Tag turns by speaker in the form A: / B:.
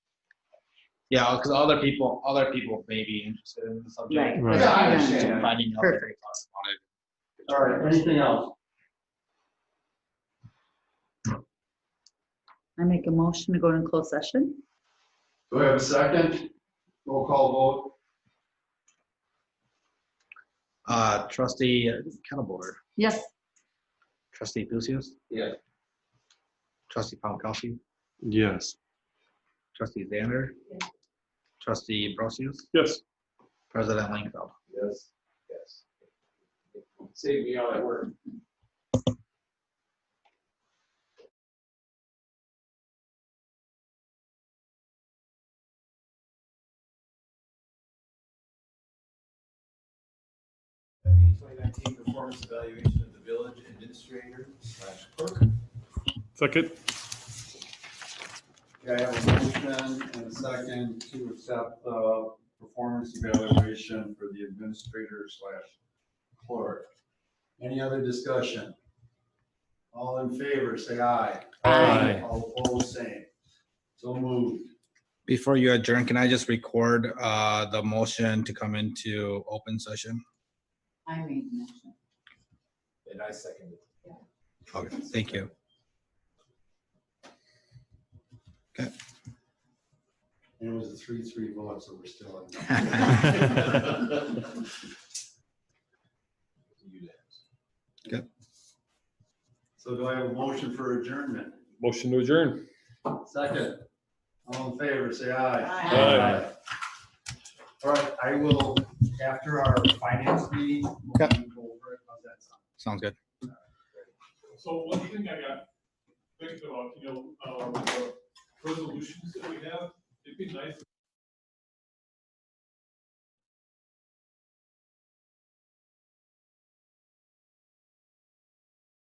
A: Yeah, because other people, other people may be interested in the subject.
B: Right.
C: Yeah, I
A: So
C: understand. that.
A: Finding out their
B: Perfect.
A: thoughts on it.
C: All right, anything else?
B: I make a motion to go into closed session.
C: Do I have a second? Roll call vote.
A: Uh, trustee Kettleboard,
B: Yes.
A: trustee Lucius,
C: Yes.
A: trustee Palmkowski,
D: Yes.
A: trustee Zander, trustee Brosius,
D: Yes.
A: president Langfeld.
C: Yes. Yes. Save me all that work.
E: The 2019 performance evaluation of the village administrator slash clerk.
D: Second.
C: Okay, I have a motion and a second to accept the performance evaluation for the administrator slash clerk. Any other discussion? All in favor, say aye.
D: Aye.
C: All opposed, same. So moved.
A: Before you adjourn, can I just record uh, the motion to come into open session?
B: I made a motion.
E: And I second it.
A: Okay, thank you.
C: And it was a three-three vote, so we're still in.
E: You did.
C: So do I have a motion for adjournment?
D: Motion to adjourn.
C: Second. All in favor, say aye.
D: Aye.
C: All right, I will, after our finance meeting, we'll go over
A: Okay.
C: it. How's that sound?
A: Sounds good.
F: So one thing I got thinking about, you know, uh, with the resolutions that we have, it'd be nice